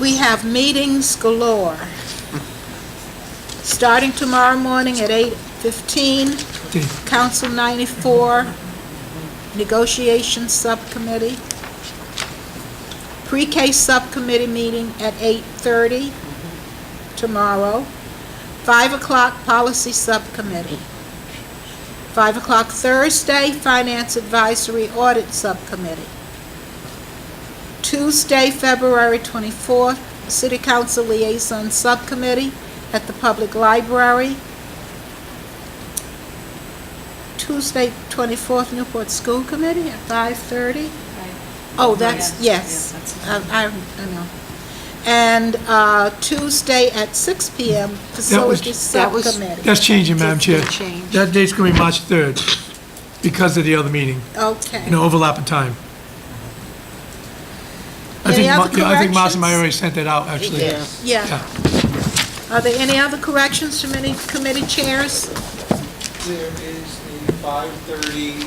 We have meetings galore. Starting tomorrow morning at 8:15, Council 94, Negotiations Subcommittee. Pre-K Subcommittee meeting at 8:30 tomorrow. 5 o'clock Policy Subcommittee. 5 o'clock Thursday, Finance Advisory Audit Subcommittee. Tuesday, February 24th, City Council Liaison Subcommittee at the Public Library. Tuesday, 24th, Newport School Committee at 5:30. Oh, that's, yes, I, I I know. And uh, Tuesday at 6 PM, Facilities that was- Subcommittee. That's changing, Madam Chair. Did change. That date's going to be March 3rd because of the other meeting, Okay. you know, overlap in time. I Any think, other Ma- yeah, I think Marcia corrections? Meyer already sent that out, actually. Yeah. Yeah. Yeah. Are there any other corrections from any committee chairs? There is the 5:30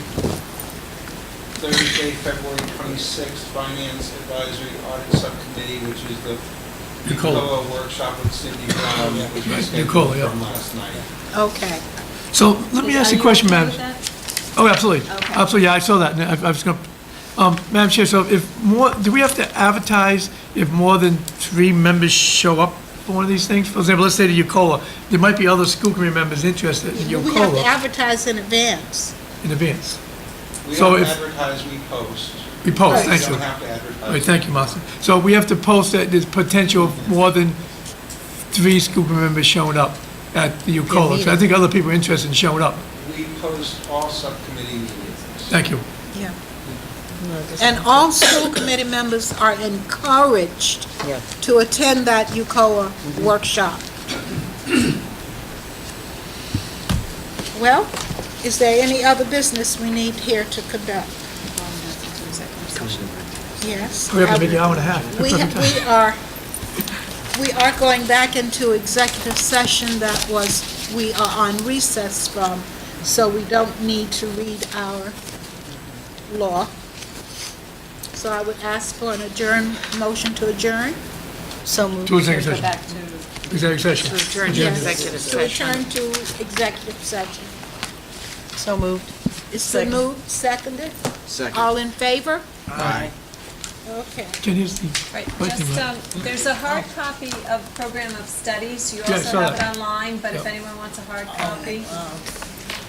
Thursday, February 26th Finance Advisory Audit Subcommittee, which is the Nicola. Nicola workshop with Cindy Brown, which Right, was scheduled Nicola, Um, yeah. from last night. Okay. So let me ask you a question, Madam. Oh, absolutely. Okay. Absolutely, yeah, I saw that, and I I was going, to Madam Chair, so if more, do we have to advertise if more than three members show up for one of these things? For example, let's say to Ucola, there might be other school committee members interested in We have to Ucola advertise in advance. in advance. We So don't if- advertise, we post. We post, We thank you. don't have to All right, advertise. thank you, Martha. So we have to post that there's potential of more than three school committee members showing up at the Ucola. So I think other people are interested in showing up. We post all subcommittee meetings. Thank you. Yeah. And all school committee members are encouraged Yeah. to attend that UCOA workshop. Well, is there any other business we need here to conduct? Yes. We have to make an hour and a half. We, That's perfect time. we are, we are going back into executive session that was, we are on recess from, so we don't need to read our law. So I would ask for an adjourn, motion to adjourn. So moved. To executive Go session. back to Executive session. adjourn to Yes, executive To session. return to executive session. So moved. Is the move seconded? Second. All in favor? Aye. Okay. Can you see? Right, Right, just, Imran. um, there's a hard copy of Program of Studies, you Yeah, I also saw have it that. online, but if Yep. anyone wants a hard copy,